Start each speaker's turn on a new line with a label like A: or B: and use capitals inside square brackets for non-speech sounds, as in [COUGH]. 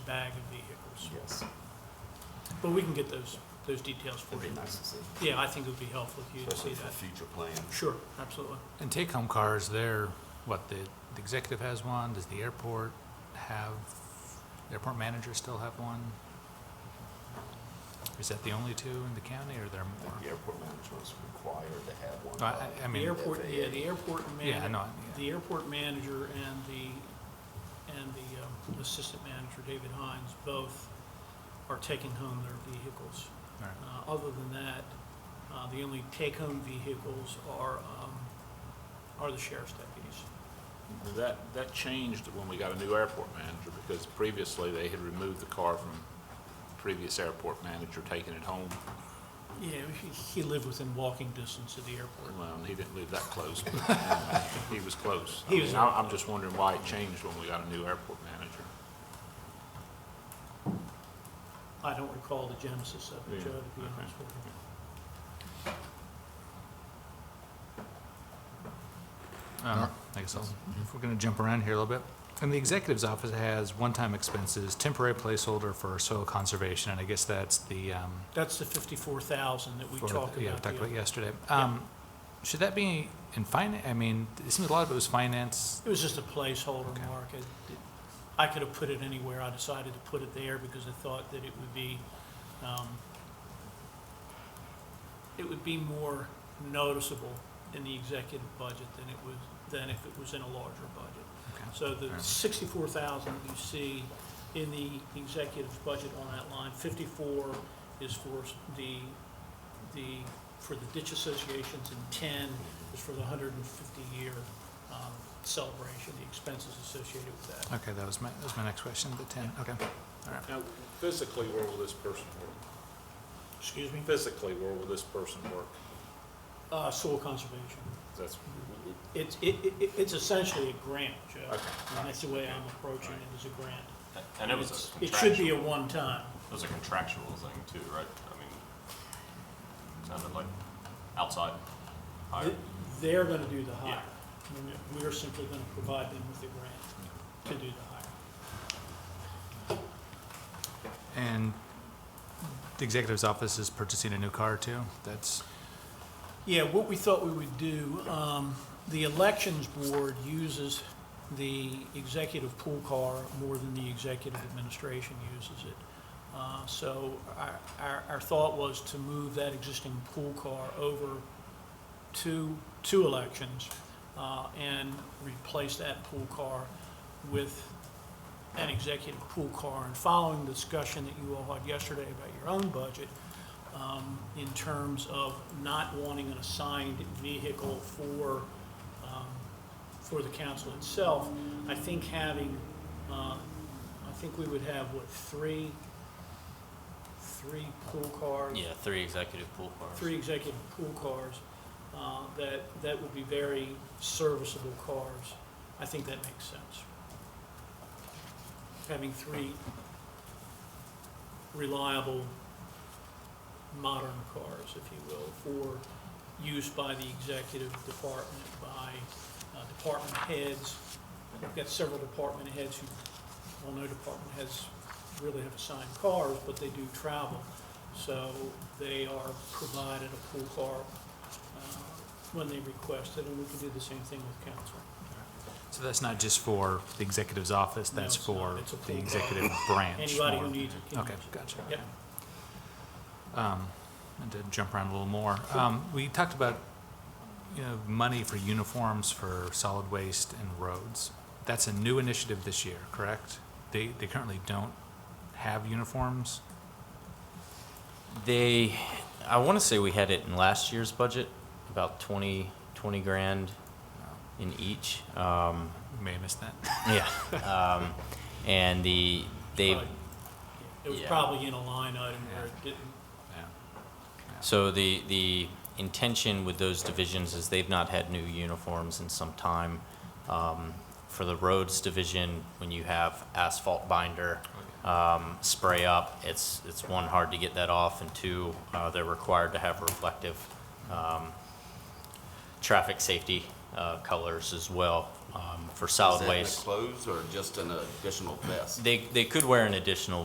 A: bag of vehicles.
B: Yes,
A: But we can get those, those details for
B: it'd
A: you.
B: be nice to see,
A: Yeah, I think it would be helpful if you to
B: especially
A: see
B: for
A: that.
B: future plans.
A: Sure, absolutely.
C: And take-home cars, they're, what, the the executive has one, does the airport have, the airport manager still have one? Is that the only two in the county, or are there
B: I
C: more?
B: think the airport manager was required to have one.
C: No, I, I- I
A: The
C: mean,
A: airport, yeah, the airport man.
C: Yeah, I know, yeah.
A: The airport manager and the, and the um, assistant manager, David Hines, both are taking home their vehicles.
C: all right.
A: Uh, Other than that, uh, the only take-home vehicles are, um, are the sheriff's deputies.
D: That, that changed when we got a new airport manager, because previously they had removed the car from the previous airport manager, taking it home.
A: Yeah, he- he lived within walking distance of the airport.
D: Well, and he didn't live that close, but uh, he was close. I
A: He was-
D: mean, I- I'm just wondering why it changed when we got a new airport manager.
A: I don't recall the genesis of it,
D: Yeah,
A: Joe, to be
D: okay.
A: honest with you.
C: Um, I guess I'll, if we're gonna jump around here a little bit. And the executive's office has one-time expenses, temporary placeholder for soil conservation, and I guess that's the, um,
A: That's the fifty-four thousand that we
C: for the-
A: talked
C: Yeah, we
A: about.
C: talked
A: the-
C: about yesterday. Um, should that be in finance? I mean, it seems a lot of it was finance.
A: It was just a placeholder,
C: Okay.
A: Mark. It- it- I could have put it anywhere. I decided to put it there because I thought that it would be, um, it would be more noticeable in the executive budget than it was, than if it was in a larger budget.
C: Okay.
A: So the
C: Fair.
A: sixty-four thousand that you see in the executive's budget on that line, fifty-four is for s- the, the, for the ditch associations, and ten is for the hundred and fifty-year, um, celebration, the expenses associated with that.
C: Okay, that was my, that was my next question, the ten, okay. All right.
D: Now, physically, where will this person work?
A: Excuse me?
D: Physically, where will this person work?
A: Uh, soil conservation.
D: That's,
A: It's, it, it, it's essentially a grant, Joe. And that's the way I'm approaching it, is a grant.
E: And it was a
A: It should be
E: contractual,
A: a one-time.
E: it was a contractual thing too, right? I mean, sounded like outside hire.
A: Th- They're gonna do the hire.
E: Yeah.
A: And We're simply gonna provide them with the grant to do the hire.
C: And the executive's office is purchasing a new car too? That's,
A: Yeah, what we thought we would do, um, the elections board uses the executive pool car more than the executive administration uses it. Uh, so our, our, our thought was to move that existing pool car over two, two elections, uh, and replace that pool car with an executive pool car. And following the discussion that you all had yesterday about your own budget, um, in terms of not wanting an assigned vehicle for, um, for the council itself, I think having, uh, I think we would have, what, three, three pool cars?
F: Yeah, three executive pool cars.
A: three executive pool cars, uh, that, that would be very serviceable cars. I think that makes sense. Having three reliable, modern cars, if you will, for use by the executive department, by uh, department heads. We've got several department heads who, well, no department heads really have assigned cars, but they do travel. So they are provided a pool car uh, when they request it, and we can do the same thing with council.
C: so that's not just for the executive's office,
A: No,
C: that's
A: it's not.
C: for
A: It's a pool
C: the
A: car.
C: executive branch?
A: Anybody
C: more
A: who
C: than-
A: needs it can
C: Okay,
A: use it.
C: gotcha.
A: Yep.
C: And to jump around a little more, um, we talked about, you know, money for uniforms for solid waste and roads. That's a new initiative this year, correct? They, they currently don't have uniforms?
F: They, I want to say we had it in last year's budget, about 20, 20 grand uh, in each. Um,
C: We may have missed that. [LAUGHS]
F: yeah. [LAUGHS] Um, and the, they,
A: Probably- It was
F: Yeah.
A: probably in a line item where it
C: Yeah.
A: didn't,
C: Yeah.
F: so the, the intention with those divisions is they've not had new uniforms in some time. Um, for the roads division, when you have asphalt binder, um, spray up, it's, it's one, hard to get that off, and two, uh, they're required to have reflective, um, traffic safety uh, colors as well um, for solid waste.
B: clothes or just an additional vest?
F: They, they could wear an additional